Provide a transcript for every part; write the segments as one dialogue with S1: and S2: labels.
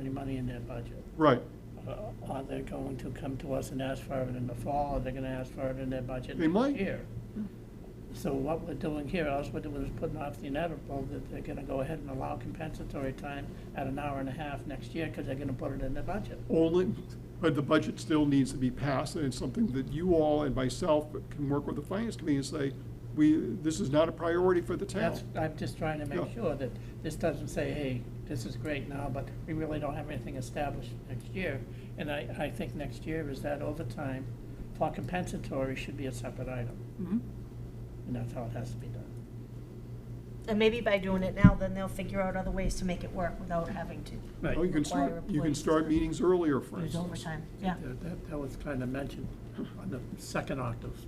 S1: any money in their budget.
S2: Right,
S1: Uh, Are they going to come to us and ask for it in the fall, or they're gonna ask for it in their budget
S2: They might.
S1: next year? So what we're doing here, all we're doing is putting off the inevitable, that they're gonna go ahead and allow compensatory time at an hour and a half next year, because they're gonna put it in their budget.
S2: only, but the budget still needs to be passed, and it's something that you all and myself can work with the finance committee and say, we, this is not a priority for the town.
S1: That's, I'm just trying to
S2: Yeah.
S1: make sure that this doesn't say, hey, this is great now, but we really don't have anything established next year. And I, I think next year is that overtime for compensatory should be a separate item,
S2: Mhm.
S1: and that's how it has to be done.
S3: And maybe by doing it now, then they'll figure out other ways to make it work without having to.
S2: Oh, you can
S3: Require
S2: start, you can
S3: employees
S2: start
S3: to-
S2: meetings earlier, for
S3: There's
S2: instance.
S3: overtime, yeah.
S1: That- That, that was kind of mentioned on the second octave.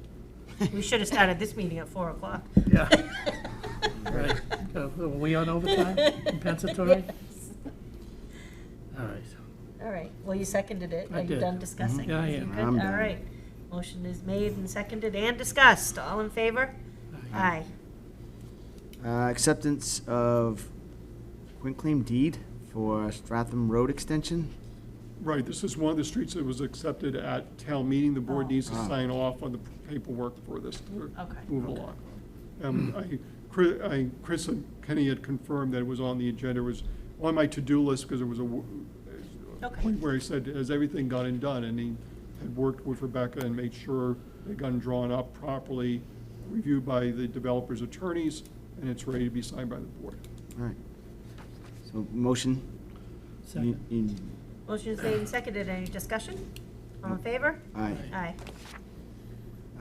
S3: We should have started this meeting at four o'clock.
S1: Yeah. Right, Uh, were we on overtime, compensatory?
S3: Yes.
S1: All right,
S3: All right, well, you seconded it.
S1: I
S3: Are you
S1: did. Mm-hmm.
S3: done discussing?
S1: Yeah, I
S3: You
S1: am.
S3: good?
S4: I'm done.
S3: All right. Motion is made and seconded and discussed. All in favor? Aye.
S4: Uh, Acceptance of quitclaim deed for Stratham Road Extension.
S2: Right, this is one of the streets that was accepted at town meeting. The board
S3: Oh.
S2: needs to
S4: Ah.
S2: sign off on the paperwork for this to
S3: Okay.
S2: move along. Um, I, Chri- I, Chris and Kenny had confirmed that it was on the agenda, It was on my to-do list because there was a w- a
S3: Okay.
S2: point where he said, has everything gotten done? And he had worked with Rebecca and made sure it had gotten drawn up properly, reviewed by the developer's attorneys, and it's ready to be signed by the board.
S4: All right. So motion. You-
S1: second.
S4: you-
S3: Motion is made and seconded. Any discussion? All in favor?
S4: Aye.
S3: Aye.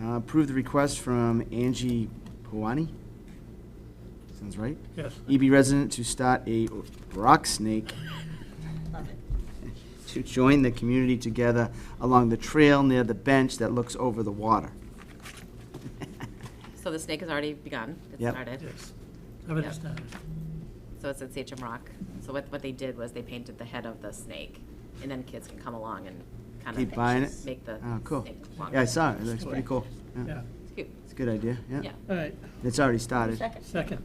S4: Uh, Approve the request from Angie Pawani. Sounds right.
S1: Yes.
S4: EB resident to start a rock snake
S3: Love it.
S4: to join the community together along the trail near the bench that looks over the water.
S5: So the snake has already begun, it
S4: Yep.
S5: started,
S1: Yes, I've understood.
S5: so it's at CHM Rock. So what, what they did was they painted the head of the snake, and then kids can come along and kind
S4: Keep buying it?
S5: of make the
S4: Oh, cool.
S5: snake
S4: Yeah, I
S5: longer.
S4: saw it. It looks pretty cool.
S1: Yeah,
S4: Yeah,
S5: It's cute,
S4: it's a good idea,
S5: yeah.
S4: yeah.
S1: all right,
S4: It's already started.
S3: Second.
S1: second,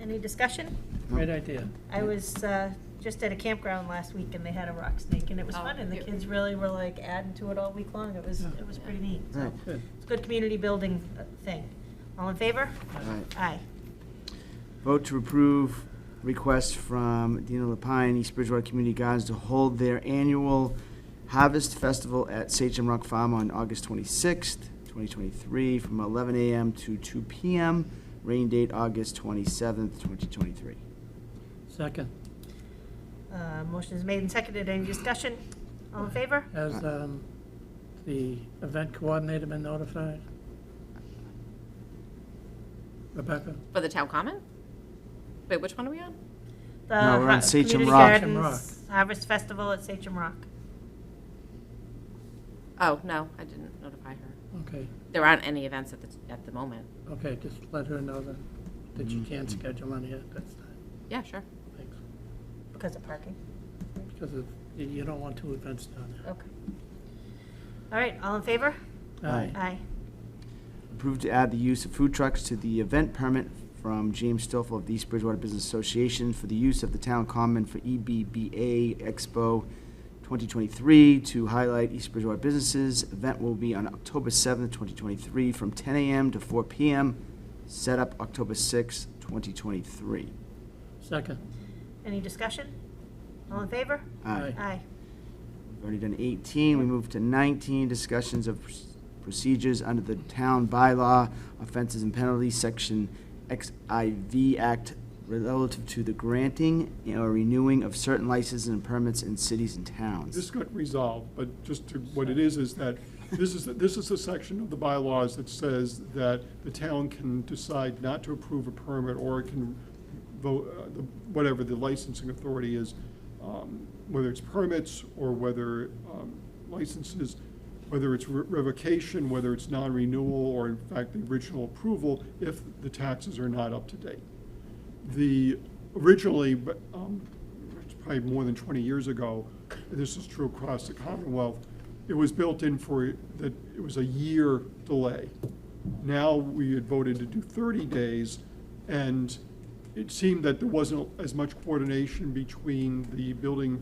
S3: Any discussion?
S1: great idea.
S3: I was uh, just at a campground last week and they had a rock snake and it was
S5: Oh,
S3: fun and the
S5: cute.
S3: kids really were like adding to it all week long. It was, it was pretty neat. So
S4: Right.
S1: Good.
S3: It's a good community building uh, thing. All in favor?
S4: All right.
S3: Aye.
S4: Vote to approve request from Dina Lapine, East Bridgewater Community Gardens to hold their annual Harvest Festival at Sachem Rock Farm on August twenty-sixth, twenty twenty-three, from eleven AM to two PM, rain date August twenty-seventh, twenty twenty-three.
S1: Second,
S3: Uh, Motion is made and seconded. Any discussion? All in favor?
S1: has um, the event coordinator been notified? Rebecca?
S5: For the town common? Wait, which one are we on?
S3: The
S4: No, we're on
S3: Ro-
S4: Sachem
S3: Community
S4: Rock.
S1: Sachem
S3: Gardens Harvest Festival at Sachem Rock.
S5: Oh, no, I didn't notify her.
S1: Okay,
S5: There aren't any events at the, at the moment.
S1: okay, just let her know that, that you can't schedule any at that time,
S5: Yeah, sure.
S1: thanks.
S3: Because of parking.
S1: Because of, you- you don't want two events down
S3: Okay. All right, all in favor?
S1: there.
S4: Aye.
S3: Aye.
S4: Approved to add the use of food trucks to the event permit from James Stoffel of the East Bridgewater Business Association for the use of the town common for E EBBA Expo 2023 to highlight East Bridgewater businesses. Event will be on October 7th, 2023, from 10 a.m. to 4 p.m. Set up October 6th, 2023.
S1: Second,
S3: Any discussion? All in favor?
S4: Aye.
S3: Aye.
S4: We've Already done 18, we move to 19, discussions of procedures under the town bylaw, offenses and penalties, section XIV Act relative to the granting or renewing of certain licenses and permits in cities and
S2: This
S4: towns.
S2: got resolved, but just to, what it is, is that, this is, this is the section of the bylaws that says that the town can decide not to approve a permit, or it can vote, uh, the- whatever the licensing authority is, um, whether it's permits, or whether um, licenses, whether it's re- revocation, whether it's non-renewal, or in fact, the original approval, if the taxes are not up to date the, originally, but, um, it's probably more than twenty years ago, this is true across the Commonwealth, it was built in for, that it was a year delay. Now, we had voted to do thirty days, and it seemed that there wasn't as much coordination between the building